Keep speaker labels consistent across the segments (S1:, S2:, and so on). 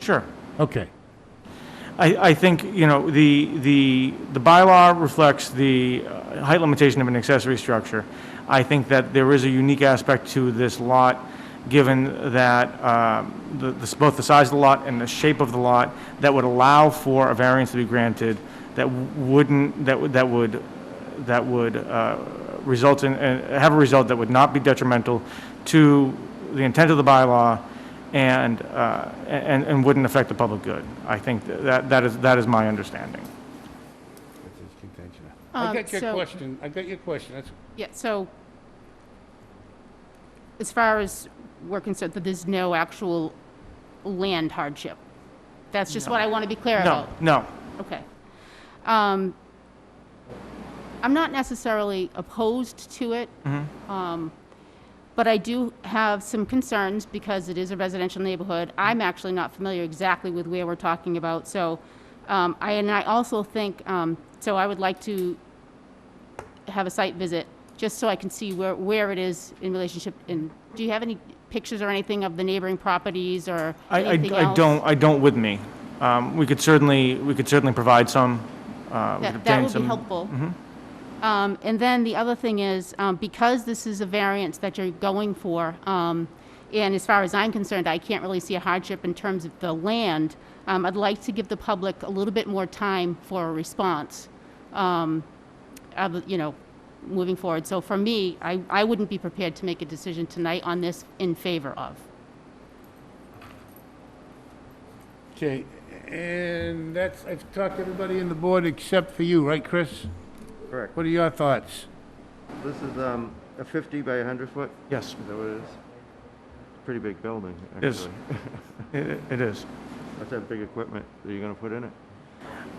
S1: Sure.
S2: Okay.
S1: I, I think, you know, the, the, the bylaw reflects the uh, height limitation of an accessory structure. I think that there is a unique aspect to this lot, given that um, the, the- both the size of the lot and the shape of the lot, that would allow for a variance to be granted that wouldn't, that would, that would, that would uh, result in, uh, have a result that would not be detrimental to the intent of the bylaw and, uh, and, and wouldn't affect the public good. I think that, that is, that is my understanding.
S3: Um,
S4: I got your
S3: so-
S4: question, I got your question, that's,
S3: Yeah, so as far as we're concerned, that there's no actual land hardship. That's just what I want to be clear
S1: No,
S3: about.
S1: no,
S3: Okay. Um, I'm not necessarily opposed to it.
S1: Mm-hmm.
S3: Um, But I do have some concerns because it is a residential neighborhood. I'm actually not familiar exactly with where we're talking about, so, um, I, and I also think, um, so I would like to have a site visit, just so I can see where, where it is in relationship, and do you have any pictures or anything of the neighboring properties or
S1: I, I
S3: anything
S1: I
S3: else?
S1: don't, I don't with me. Um, We could certainly, we could certainly provide some. uh, we could
S3: That, that
S1: obtain
S3: would be
S1: some-
S3: helpful. Um, and then the other thing is, um, because this is a variance that you're going for, um, and as far as I'm concerned, I can't really see a hardship in terms of the land. Um, I'd like to give the public a little bit more time for a response, um, of, you know, moving forward. So for me, I, I wouldn't be prepared to make a decision tonight on this in favor of.
S4: okay, and that's, I've talked to everybody in the board except for you, right, Chris?
S5: Correct.
S4: What are your thoughts?
S5: This is um, a 50 by 100 foot?
S1: Yes,
S5: Is that what it is? Pretty big building,
S1: It is.
S5: actually.
S1: it it is.
S5: That's that big equipment that you're going to put in it.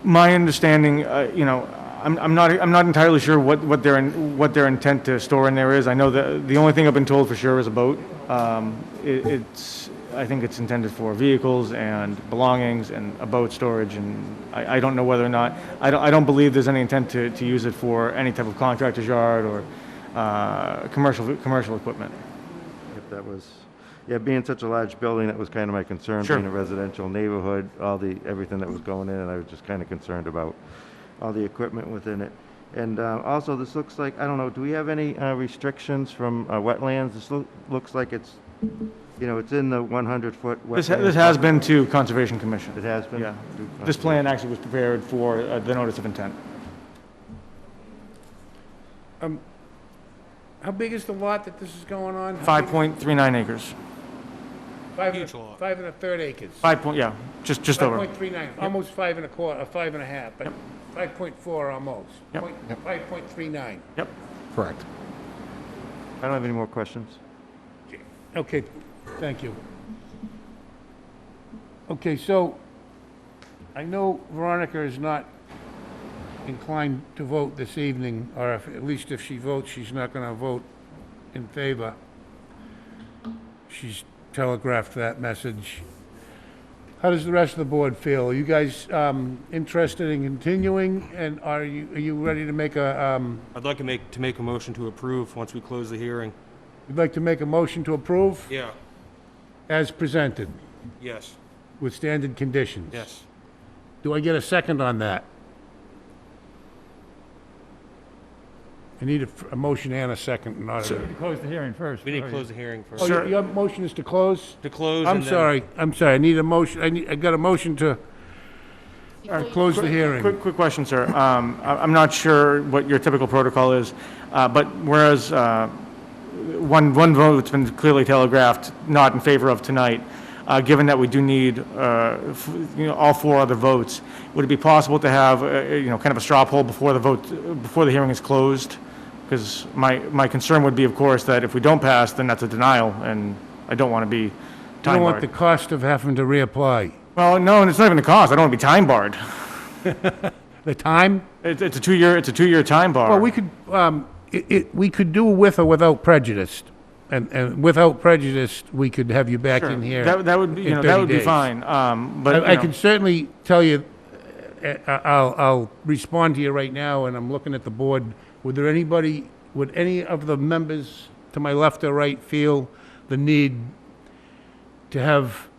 S1: My understanding, uh, you know, I'm, I'm not, I'm not entirely sure what, what their, in- what their intent to store in there is. I know that, the only thing I've been told for sure is a boat. Um, it- It's, I think it's intended for vehicles and belongings and a boat storage, and I, I don't know whether or not, I don't, I don't believe there's any intent to, to use it for any type of contractor's yard or uh, commercial, commercial equipment.
S5: If that was, yeah, being such a large building, that was kind of my concern.
S1: Sure.
S5: Being a residential neighborhood, all the, everything that was going in, and I was just kind of concerned about all the equipment within it. And uh, also, this looks like, I don't know, do we have any uh, restrictions from uh, wetlands? This loo- looks like it's, you know, it's in the 100-foot wetland.
S1: This, ha- this has been to Conservation
S5: It
S1: Commission.
S5: has been?
S1: Yeah. This plan actually was prepared for uh, the notice of intent.
S4: How big is the lot that this is going on? How big-
S1: 5.39 acres.
S4: five and a- Five and a third acres.
S1: Five point, yeah, just, just
S4: Five
S1: over.
S4: point three nine, almost five and a quarter, uh, five and a half, but five point four almost.
S1: Yep.
S4: Point- Five point three nine.
S1: Yep.
S6: Correct.
S5: I don't have any more questions.
S4: Okay, thank you. Okay, so I know Veronica is not inclined to vote this evening, or if- at least if she votes, she's not going to vote in favor. She's telegraphed that message. How does the rest of the board feel? Are you guys um, interested in continuing, and are you, are you ready to make a, um,
S7: I'd like to make, to make a motion to approve once we close the hearing.
S4: you'd like to make a motion to approve
S7: Yeah,
S4: as presented
S7: yes,
S4: with standard conditions?
S7: yes.
S4: Do I get a second on that? I need a, a motion and a second, not a...
S6: Close the hearing first.
S7: We need to close the hearing
S4: Oh,
S7: first.
S4: your, your motion is to close?
S7: To close and
S4: I'm
S7: then-
S4: sorry, I'm sorry, I need a motion, I need, I got a motion to, uh, close the hearing.
S1: Quick, quick question, sir. Um, I- I'm not sure what your typical protocol is, uh, but whereas uh, one, one vote's been clearly telegraphed not in favor of tonight, uh, given that we do need, uh, f- you know, all four other votes, would it be possible to have, uh, you know, kind of a straw poll before the vote, before the hearing is closed? Because my, my concern would be, of course, that if we don't pass, then that's a denial, and I don't want to be
S4: I
S1: time
S4: don't want the
S1: barred.
S4: cost of having to reapply.
S1: Well, no, and it's not even the cost. I don't want to be time barred.
S4: The time?
S1: It's, it's a two-year, it's a two-year time bar.
S4: Well, we could, um, it, it, we could do with or without prejudice. And, and without prejudice, we could have you back in here.
S1: That, that would, be- you
S4: in
S1: know, that
S4: 30
S1: would be
S4: days.
S1: fine, um, but,
S4: I, I
S1: you know,
S4: can certainly tell you, uh, I- I'll, I'll respond to you right now, and I'm looking at the board. Would there anybody, would any of the members to my left or right feel the need to have